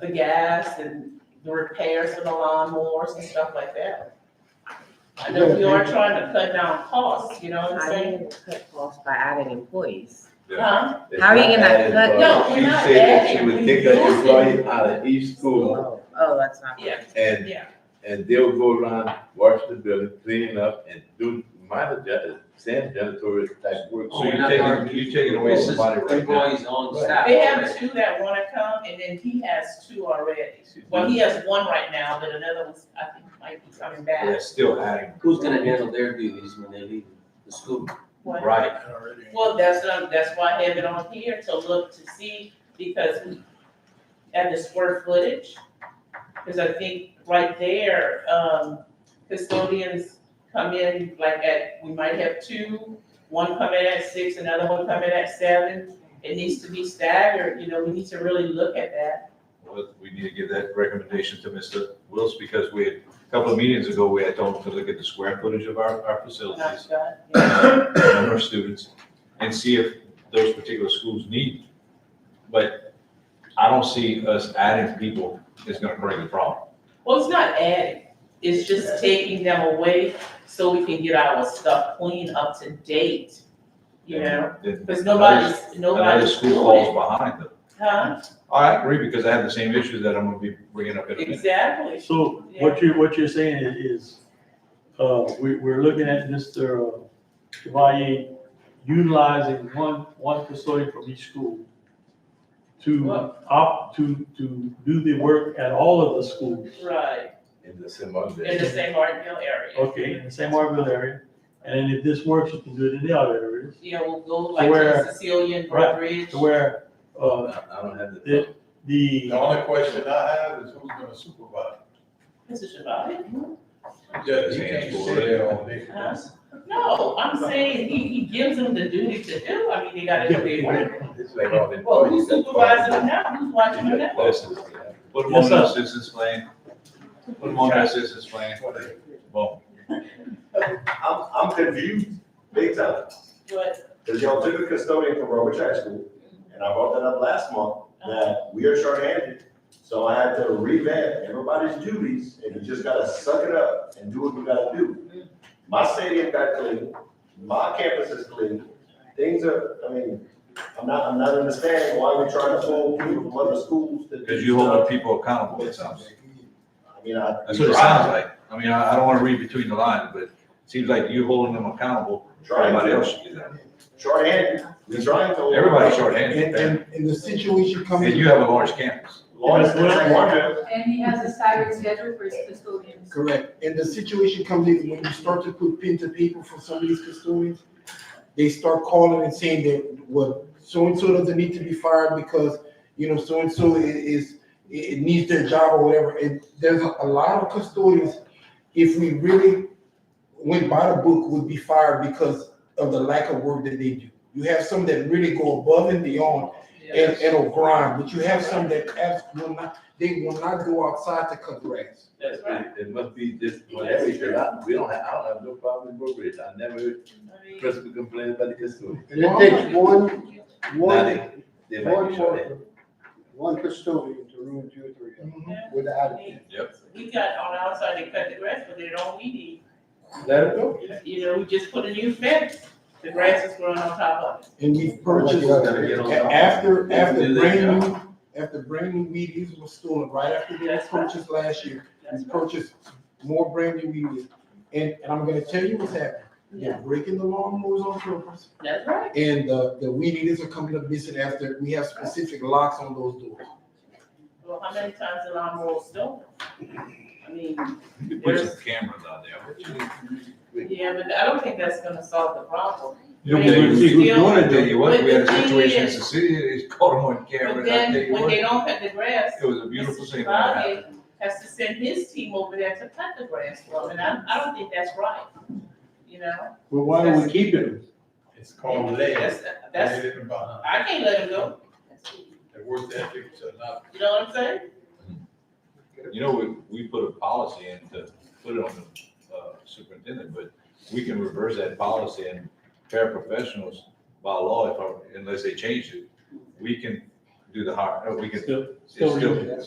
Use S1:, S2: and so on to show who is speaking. S1: the gas and the repairs for the lawnmowers and stuff like that. I know we are trying to cut down costs, you know what I'm
S2: I
S1: saying?
S2: didn't cut costs by adding employees.
S1: Huh?
S3: It's
S2: How are you
S3: not
S2: gonna
S3: added,
S2: cut-
S3: but
S1: No, we're not
S3: uh, She said that she
S1: adding,
S3: would
S1: we're
S3: take an
S1: using.
S3: employee out of each school
S2: Oh, oh, that's not.
S1: Yeah,
S3: and,
S1: yeah.
S3: and they'll go around, wash the building, clean up and do minor janitor, sand janitorial type work.
S4: So you're taking, you're taking away
S3: Well, somebody
S4: assistant
S3: right
S4: employees on
S3: Right.
S4: staff.
S1: They have two that wanna come and then he has two already. Well, he has one right now, but another one's, I think, might be coming back.
S3: They're still adding.
S4: Who's gonna handle their duties when they leave the school?
S1: One-
S4: Right.
S1: Well, that's, um, that's why I have it on here to look to see, because we, at the square footage, because I think right there, um, custodians come in like at, we might have two, one coming at six, another one coming at seven. It needs to be staggered, you know, we need to really look at that.
S5: Well, we need to give that recommendation to Mr. Wills, because we, had- a couple of meetings ago, we had told him to look at the square footage of our,
S1: when
S5: our
S1: I'm
S5: facilities,
S1: done. Yeah.
S5: uh, number of students, and see if those particular schools need. But I don't see us adding people is gonna create the problem.
S1: Well, it's not adding, it's just taking them away so we can get our stuff clean up to date, you know?
S5: Then
S1: Because nobody's,
S5: Another
S1: nobody's
S5: school
S1: doing
S5: falls
S1: it.
S5: behind them.
S1: Huh?
S5: I agree, because I have the same issues that I'm gonna be bringing up in a minute.
S1: Exactly.
S6: So what you, what you're saying is- is, uh, we, we're looking at Mr. Chevalier utilizing one, one custodian from each school to opt, to, to do the work at all of the schools,
S1: Right,
S3: In the same.
S1: in the same Martinville area.
S6: okay, in the San Marvin area. And then if this works, you can do it in the other areas,
S1: You know, we'll go like
S6: Where-
S1: to Sicilian
S6: right,
S1: Bridge.
S6: to where, uh,
S3: I I don't have
S6: Yeah.
S3: the.
S6: the,
S7: only question I have is who's gonna supervise?
S1: This is Shabbat.
S7: Yeah, you can't sit there all day.
S1: Huh? No, I'm saying he, he gives them the duty to do, I mean, they gotta do their work.
S3: It's like all the.
S1: Well, who's
S3: employees that-
S1: supervising them now, who's watching them now?
S5: Listen, Put them
S6: Yes,
S5: on the
S6: sir.
S5: assistance plan, put them on the assistance plan, boom.
S8: I'm, I'm confused, big time,
S1: But,
S8: because y'all took a custodian from Robert Track School, and I brought that up last month, that we are shorthanded. So I had to revamp everybody's duties, and you just gotta suck it up and do what you gotta do. My stadium got clean, my campus is clean, things are, I mean, I'm not, I'm not understanding why we're trying to pull people from other schools to. do
S5: Because you hold
S8: stuff.
S5: people accountable, it sounds.
S8: I mean, I.
S5: That's what it sounds like. I mean, I, I don't wanna read between the lines, but it seems like you holding them accountable,
S8: Trying
S5: everybody
S8: to,
S5: else should do that.
S8: shorthanded, we're trying to.
S5: Everybody's shorthanded, and
S7: and the situation
S5: you have a large campus.
S8: Lawrence, that's one of them.
S9: And he has a staggered schedule for his custodians.
S7: Correct, and the situation comes in when you start to put pen to paper for some of these custodians, they start calling and saying that, well, so-and-so doesn't need to be fired because, you know, so-and-so i- is, i- it needs their job or whatever, and there's a a lot of custodians, if we really went by the book, would be fired because of the lack of work that they do. You have some that really go above and beyond
S1: yeah,
S7: and, and will grind, but you have some that abs- will not, they will not go outside to cut grass.
S1: that's right.
S3: It must be just, whatever, we don't have, I don't have no problem with brokerage, I never heard
S1: I mean,
S3: Chris would complain about the custodian.
S10: And it takes one,
S3: Now
S10: one,
S3: they- They might be
S10: one
S3: short.
S10: worker, one custodian to ruin two or three of them
S1: yeah,
S10: without
S1: I
S10: it.
S1: mean,
S5: Yep.
S1: We got on our side to cut the grass, but they don't we need.
S7: Let it go.
S1: You know, we just put a new fence, the grass is growing on top of it.
S7: And we've purchased, a- after, after brand new, after brand new weed eaters were stolen, right after they were purchased last year,
S1: That's
S7: we
S1: right.
S7: purchased more brand new weed eaters. And, and I'm gonna tell you what's happening, they're breaking the lawnmowers on purpose,
S1: That's right.
S7: and the, the weed eaters are coming up missing after, we have specific locks on those doors.
S1: Well, how many times the lawnmower was stolen? I mean,
S5: You Put some cameras out there.
S1: yeah, but I don't think that's gonna solve the problem.
S6: you know,
S1: But
S6: we're-
S1: it's
S6: we're
S1: still-
S6: doing
S5: I
S6: it,
S5: tell you what, we had a
S1: But the thing
S5: situation in
S1: is-
S5: the city, they caught them on camera,
S1: But
S5: and I tell
S1: then,
S5: you
S1: when
S5: what,
S1: they
S5: it
S1: don't cut the grass,
S5: was a beautiful thing. when it happened.
S1: Mr. has to send his team over there to cut the grass for him, and I, I don't think that's right, you know?
S10: Well, why don't we keep it?
S7: It's
S1: That's, that's, I can't let him go,
S7: Their work ethics are not
S1: you know what I'm saying?
S5: You know, we, we put a policy in to put it on the uh, superintendent, but we can reverse that policy and paraprofessionals by law, if, I- unless they change it, we can do the hire, uh, we can.
S6: Still-
S5: it's
S6: still
S5: still-
S6: reasonable.